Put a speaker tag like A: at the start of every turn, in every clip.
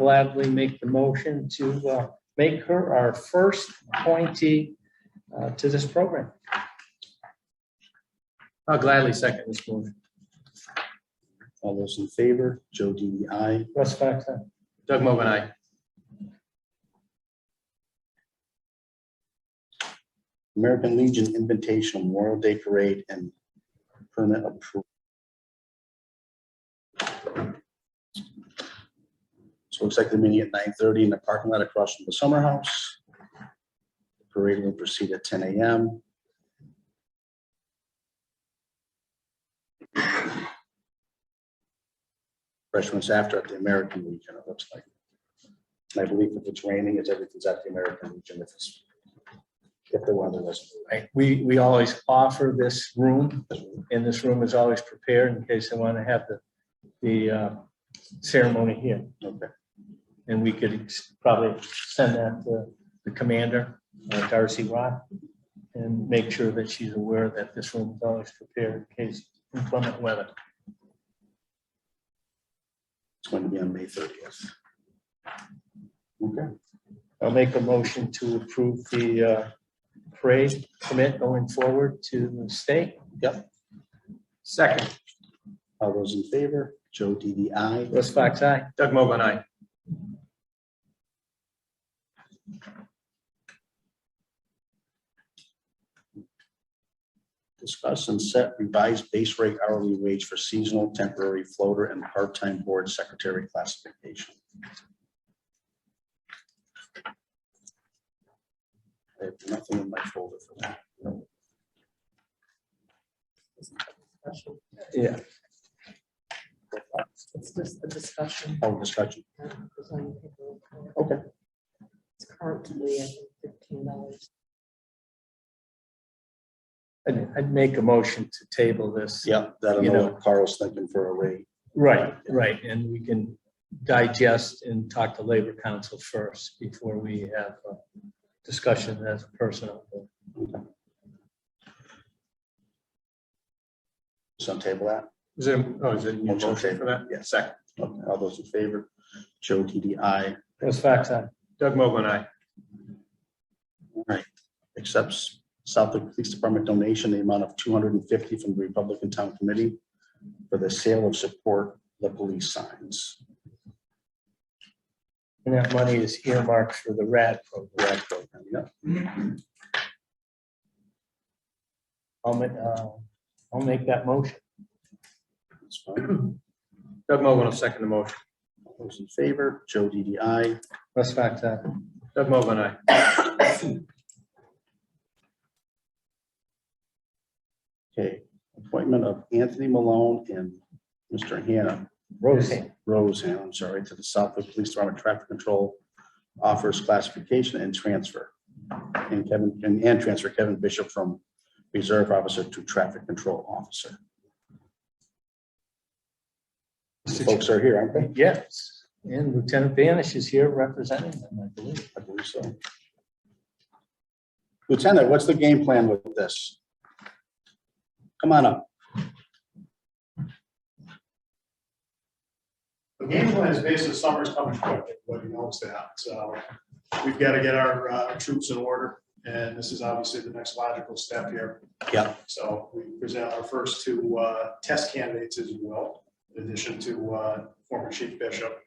A: gladly make the motion to uh, make her our first appointee uh, to this program.
B: I'll Oh, gladly second this motion.
C: All those in favor, Joe E DDI. aye.
A: Russ Fox, aye.
B: Doug Mogul, aye.
C: American Legion Invitational Memorial Day Parade and permit approval. So it looks like they're meeting at nine thirty in the parking lot across from the summer house. The Parade will proceed at ten AM. Freshman's after at the American Legion, it looks like. And I believe if it's raining, it's everything's at the American Legion if it's, if the weather doesn't.
A: Right, we, we always offer this room, and this room is always prepared in case they want to have the, the uh, ceremony here.
C: Okay,
A: And we could ex- probably send that to the commander, uh, Darcy Rock, and make sure that she's aware that this room is always prepared in case inclement weather.
C: it's going to be on May thirtieth. Okay,
A: I'll make a motion to approve the uh, parade commit going forward to the state.
B: Second,
C: all those in favor, Joe DDI.
A: Russ Fox, aye.
B: Doug Mogul, aye.
C: Discuss and set revised base rate hourly wage for seasonal, temporary floater and part-time board secretary classification. I have nothing in my folder for that.
A: Yeah.
D: It's just the discussion.
C: Oh, discussion.
D: uh, is on the paper.
C: Okay.
D: It's currently at fifteen dollars.
A: I'd, I'd make a motion to table this.
C: Yeah, that'll
A: You
C: know
A: know.
C: what Carl's thinking for a rate.
A: Right, right, and we can digest and talk to Labor Council first before we have a discussion as a personal.
C: So table that.
B: Is it, oh, is it a
C: Motion
B: motion for that?
C: Yes.
B: Second,
C: Okay, All those in favor, Joe DDI.
A: Russ Fox, aye.
B: Doug Mogul, aye.
C: All right, accepts Southwick Police Department donation, the amount of two hundred and fifty from the Republican Town Committee for the sale of support the police signs.
A: And that money is earmarked for the RAD program.
C: Rec program, yeah.
A: I'll make, uh, I'll make that motion.
C: that's fine.
B: Doug Mogul will second the motion.
C: All Those in favor, Joe DDI.
A: Russ Fox, aye.
B: Doug Mogul, aye.
C: Okay, appointment of Anthony Malone and Mr. Hannah
A: Roseanne.
C: Rose, Hannah, I'm sorry, to the Southwick Police Department Traffic Control offers classification and transfer. And Kevin, and, and transfer Kevin Bishop from Reserve Officer to Traffic Control Officer. Folks are here, aren't they?
A: Yes, and Lieutenant Banish is here representing them, I believe.
C: I believe so. Lieutenant, what's the game plan with this? Come on up.
E: The game plan is basically summer's coming quick, everybody knows that, so we've got to get our uh, troops in order, and this is obviously the next logical step here.
C: Yeah.
E: So we present our first two uh, test candidates as well, in addition to uh, former Chief Bishop.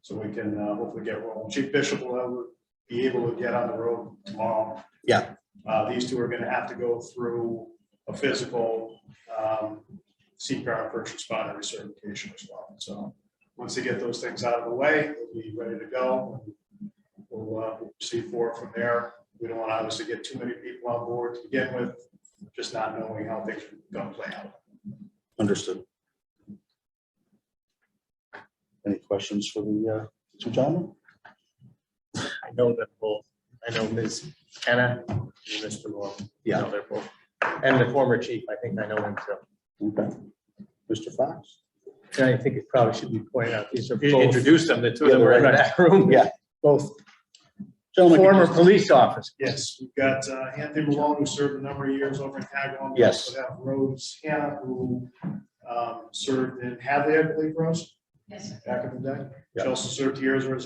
E: So we can uh, hopefully get rolling. Chief Bishop will have- be able to get on the road tomorrow.
C: Yeah.
E: Uh, These two are going to have to go through a physical um, CPR first responder recertification as well. So once they get those things out of the way, they'll be ready to go. We'll uh, we'll proceed forward from there. We don't want to obviously get too many people on board to begin with, just not knowing how things are going to play out.
C: Understood. Any questions for the uh, two gentlemen?
B: I know them both. I know Ms. Hannah and Mr. Malone.
C: Yeah.
B: I know they're both. And the former chief, I think I know him too.
C: Okay. Mr. Fox?
A: And I think it probably should be pointed out, these are
B: You
A: both
B: introduced them, the two of them were in that room.
C: Yeah. Both. Gentlemen, could you
A: former
C: just-
A: police officers.
E: Yes, we've got uh, Anthony Malone, who served a number of years over in Tagline.
C: Yes.
E: We also have Rose Hannah, who um, served in Hadley, I believe, Rose? back of the deck.
C: Yeah.
E: She also served years as